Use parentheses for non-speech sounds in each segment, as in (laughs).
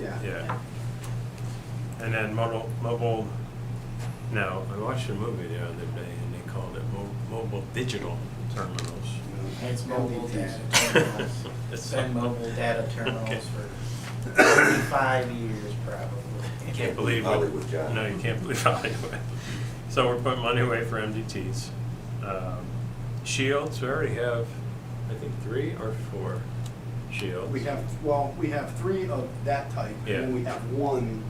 Yeah. Yeah. And then mobile, mobile, no, I watched a movie the other day and they called it mo- mobile digital terminals. It's mobile data terminals. It's It's- been mobile data terminals for five years probably. You can't believe what, Hollywood job. no, you can't believe (laughs) Hollywood. So we're putting money away for MDTs. Um, Shields, we already have, I think, three or four shields. We have, well, we have three of that type, and Yeah. then we have one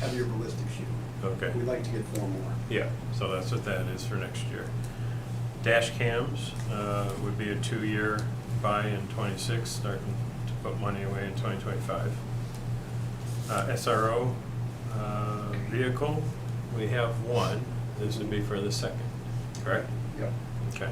heavier ballistic shield. Okay. We'd like to get four more. Yeah, so that's what that is for next year. Dash cams uh, would be a two-year buy in '26, starting to put money away in 2025. Uh, SRO uh, vehicle, we have one. This would be for the second, correct? Yep. Okay.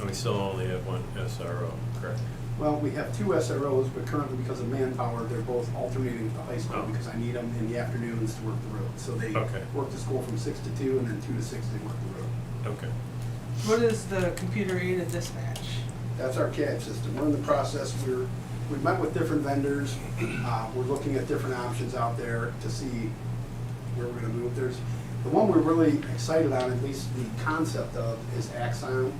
And we still only have one SRO, correct? Well, we have two SROs, but currently because of manpower, they're both alternating at the high school Oh. because I need them in the afternoons to work the road. So they Okay. work the school from six to two, and then two to six they work the road. Okay. What is the computer aided dispatch? That's our CAD system. We're in the process, we're, we met with different vendors. Uh, We're looking at different options out there to see where we're gonna move. There's, the one we're really excited on, at least the concept of, is Axon.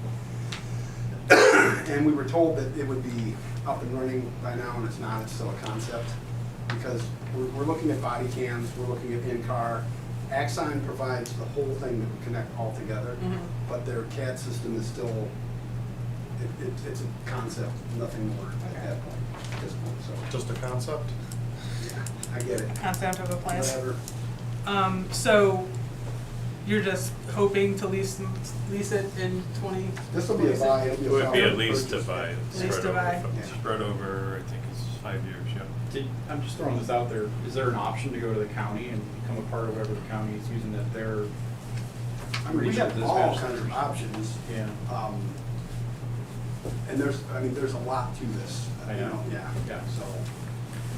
And we were told that it would be up and running by now, and it's not, it's still a concept. Because we're, we're looking at body cams, we're looking at in-car. Axon provides the whole thing that would connect all together, Mhm. but their CAD system is still it, it, it's a concept, nothing more at that point, at this point, so, Just a concept? yeah, I get it. Concept of a plan? Whatever, Um, so you're just hoping to lease, lease it in twenty? this will be a buy, It it'll be would be a at solid least a purchase. buy. it's Least spread a buy. over- Yeah. Spread over, I think it's five years, yeah. Did, I'm just throwing this out there, is there an option to go to the county and become a part of whatever the county is using that they're? I mean, we have all kinds of options. Yeah. Um, and there's, I mean, there's a lot to this, I you know. know, yeah, Yeah. so.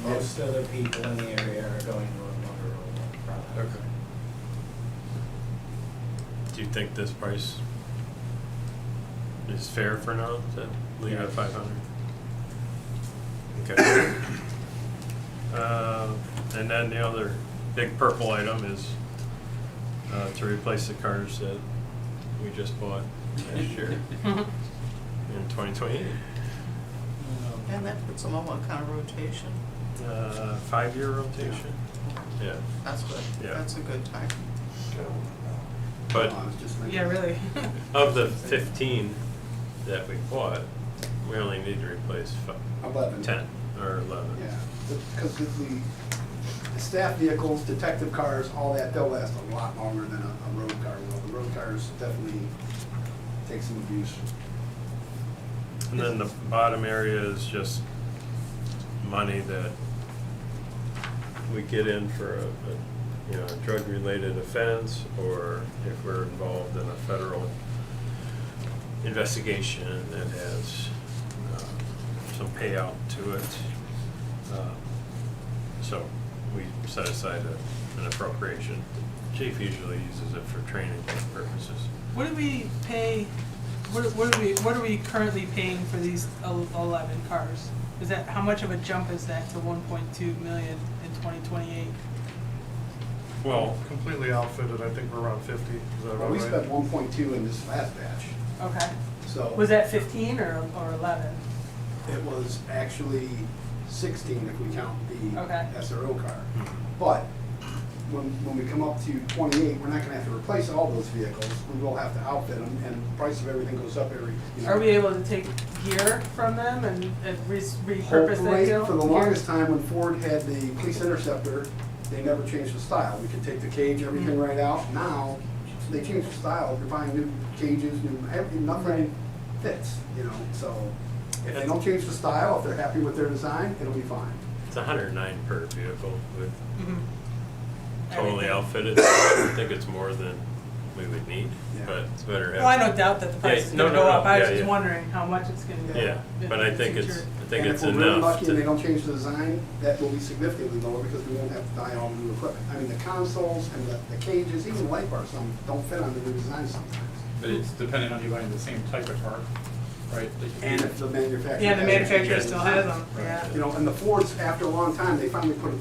Most other people in the area are going to a Motorola product. Do you think this price is fair for now to leave it at five hundred? Okay. Uh, and then the other big purple item is, uh, to replace the cars that we just bought last year in twenty twenty-eight. And that puts them on what kind of rotation? Uh, five-year rotation, yeah, That's good. Yeah. That's a good time. but. I was just thinking- (laughs) Yeah, really? (laughs) Of the fifteen that we bought, we only need to replace fi- Eleven. ten or eleven. Yeah, because the, the staff vehicles, detective cars, all that, they'll last a lot longer than a, a road car will. The road cars definitely take some abuse. And then the bottom area is just money that we get in for a, a, you know, a drug-related offense, or if we're involved in a federal investigation that has uh, some payout to it. Uh, So we set aside a- an appropriation. Chief usually uses it for training purposes. What do we pay, what, what are we, what are we currently paying for these el- eleven cars? Is that, how much of a jump is that to one point two million in twenty twenty-eight? Well, Completely outfitted, I think we're around fifty, is that Well, about we spent right? one point two in this last batch, Okay. so. Was that fifteen or, or eleven? It was actually sixteen if we count the Okay. SRO car. But when, when we come up to twenty-eight, we're not gonna have to replace all those vehicles. We will have to outfit them and the price of everything goes up every, you know. Are we able to take gear from them and, and re- repurpose that Hopefully, deal? For the longest time, when Ford had the police interceptor, they never changed the style. We could take the cage, everything right out. Now, they changed the style. You're buying new cages, new, everything, nothing fits, you know, so. If they don't change the style, if they're happy with their design, it'll be fine. it's hundred and nine per vehicle with Mhm. totally Everything. outfitted. I think it's more than we would need, Yeah. but it's better. Well, I have- no doubt that the Yeah, price is no, gonna no, go up, no, I was yeah, just yeah. wondering how much it's gonna go Yeah, up. in but I the think it's, future. I think And it's If we're really enough lucky and they to, don't change the design, that will be significantly lower because we won't have to buy all new equipment. I mean, the consoles and the the cages, even the light bars, some don't fit on the new design sometimes. But it's dependent on you buying the same type of car, right? that you- And if the manufacturer. Yeah, the hasn't manufacturer changed still the design. has them, yeah. You know, and the Fords, after a long time, they finally put a